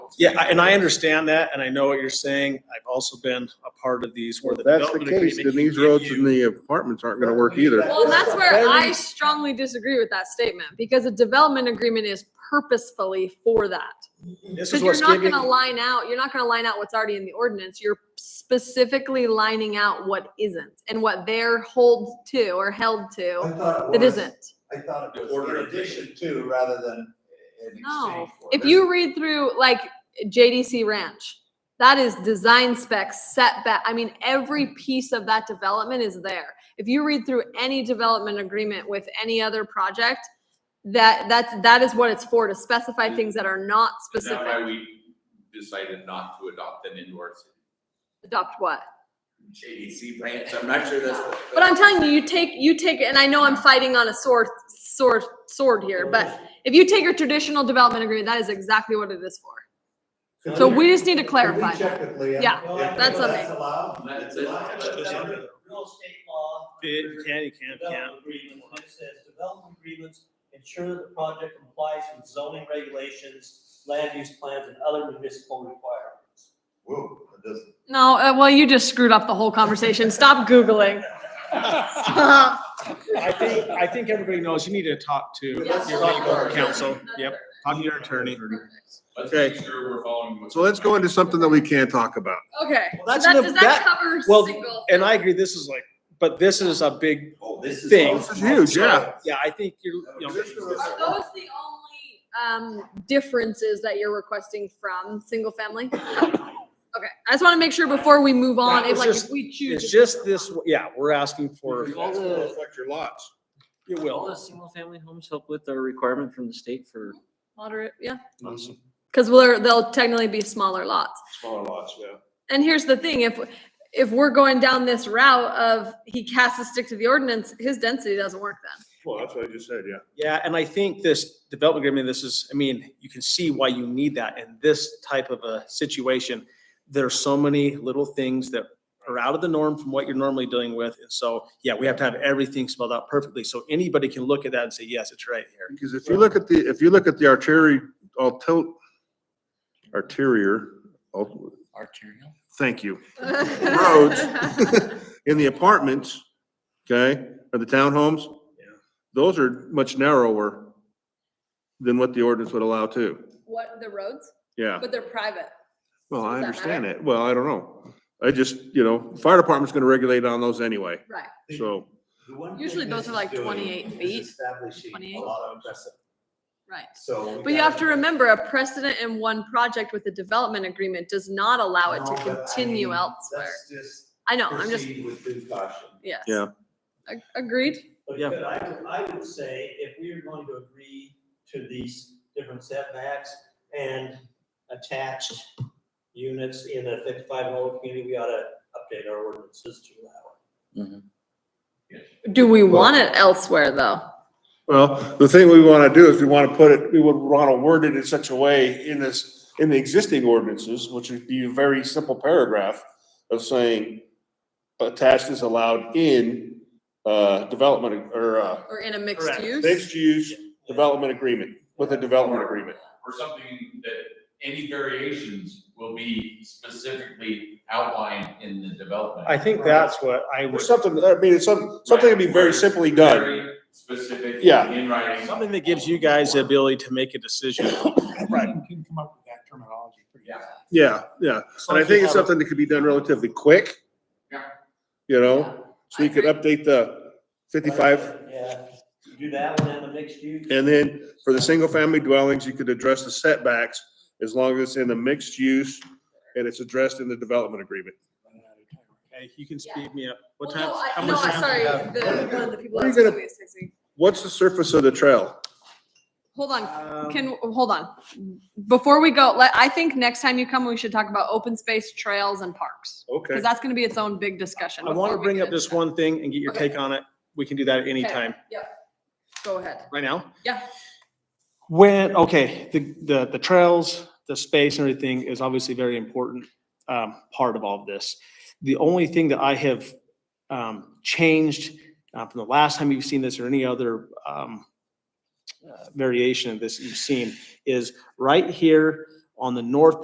Yeah, I- and I understand that, and I know what you're saying. I've also been a part of these where the If that's the development case, agreement. then these can give roads and you- the apartments aren't gonna work either. Well, and that's where Very- I strongly disagree with that statement because a development agreement is purposefully for that. This Because is you're what's not giving, gonna line out, you're not gonna line out what's already in the ordinance. You're specifically lining out what isn't and what they're hold to or held to thought that it was- isn't. I thought it The was order in of addition to rather than in No. exchange for. If you read through like JDC Ranch, that is design specs, setback. I mean, every piece of that development is there. If you read through any development agreement with any other project, that that's that is what it's for to specify things that are not Is that why specific. we decided not to adopt them into our Adopt what? JDC branch? I'm not sure that's. the- But I'm telling you, you take, you take, and I know I'm fighting on a sword, sword, sword here, but if you take a traditional development agreement, that is exactly what it is for. Could So we just need to could we clarify. check with Leanne? Yeah, If that's That's allowed. That's it's it. allowed. That's That's it. under the real estate law. It can, you can, can. Development agreements, and it says development agreements ensure that the project complies with zoning regulations, land use plans, and other municipal requirements. Whoa, it doesn't. No, uh, well, you just screwed up the whole conversation. Stop Googling. Stop. I think, I think everybody knows you need to talk to your Yes. legal counsel. Yep, talk to your attorney. Let's Okay. make sure we're following. what- So let's go into something that we can talk about. Okay, Well, so that's that, the- does that- that cover well, single? And I agree, this is like, but this is a big, Oh, this Thing. This is huge, yeah. yeah, I think you're, you know. Are those the only, um, differences that you're requesting from single family? Okay, I just want to make sure before we move on, That if was like, if just- we choose. It's just this, yeah, we're asking for, It's all gonna affect your lots. you All will. the single-family homes help with the requirement from the state for Moderate, yeah. Awesome. Because we're, they'll technically be smaller lots. Smaller lots, yeah. And here's the thing, if, if we're going down this route of he casts a stick to the ordinance, his density doesn't work then. Well, that's what I just said, yeah. Yeah, and I think this development agreement, this is, I mean, you can see why you need that in this type of a situation. There are so many little things that are out of the norm from what you're normally dealing with. And so, yeah, we have to have everything spelled out perfectly. So anybody can look at that and say, yes, it's right here. Because if you look at the, if you look at the artery, alto, arterial, al- arterial. thank you, Roads. in the apartments, okay, or the townhomes. Those are much narrower than what the ordinance would allow too. What, the roads? Yeah, But they're private. well, I does that understand matter? it. Well, I don't know. I just, you know, fire department's gonna regulate on those anyway, Right. so. Usually those are like 28 feet, Establishing 28. a lot of precedent, Right. so. we But you have to gotta- remember, a precedent in one project with a development agreement does not allow it No, to but I continue mean, elsewhere. Let's just I know, I'm just, proceed with due caution. yes. Yeah. Ag- Agreed. But Yeah. but I, would- I would say if we are going to agree to these different setbacks and attached units in a fifty-five and older community, we ought to update our ordinances to allow it. Do we want it elsewhere, though? Well, the thing we want to do is we want to put it, we would want to word it in such a way in this, in the existing ordinances, which would be a very simple paragraph of saying attached is allowed in, uh, development or, uh, Or in a mixed Correct. use? mixed use development agreement, with a development agreement. Or something that any variations will be specifically outlined in the development. I think that's what I Or was, something, I mean, it's some, something to be very simply done. Very Specific. Yeah. In writing. something that gives you guys the ability to make a decision. Right. Can come up with that terminology pretty Yeah. Yeah, yeah. And I think it's something that could be done relatively quick. Yeah. You know, so we could update the fifty-five Yeah, do that one in the mixed use. And then for the single-family dwellings, you could address the setbacks as long as it's in the mixed use and it's addressed in the development agreement. Okay, you can speed me up. What time? Well, no, I- how No, much I- time do sorry, we have? the, one of the people What are you that's gonna- doing is texting. What's the surface of the trail? Hold on, Um, can, hold on. Before we go, let, I think next time you come, we should talk about open space, trails and parks. Okay. Cause that's gonna be its own big discussion. I want to before we bring get up this into one thing and get your Okay. take on it. We can do that at any Okay. time. that. Go ahead. Right now? Yeah. When, okay, the, the, the trails, the space and everything is obviously very important, um, part of all of this. The only thing that I have, um, changed, uh, from the last time you've seen this or any other, um, uh, variation of this you've seen is right here on the north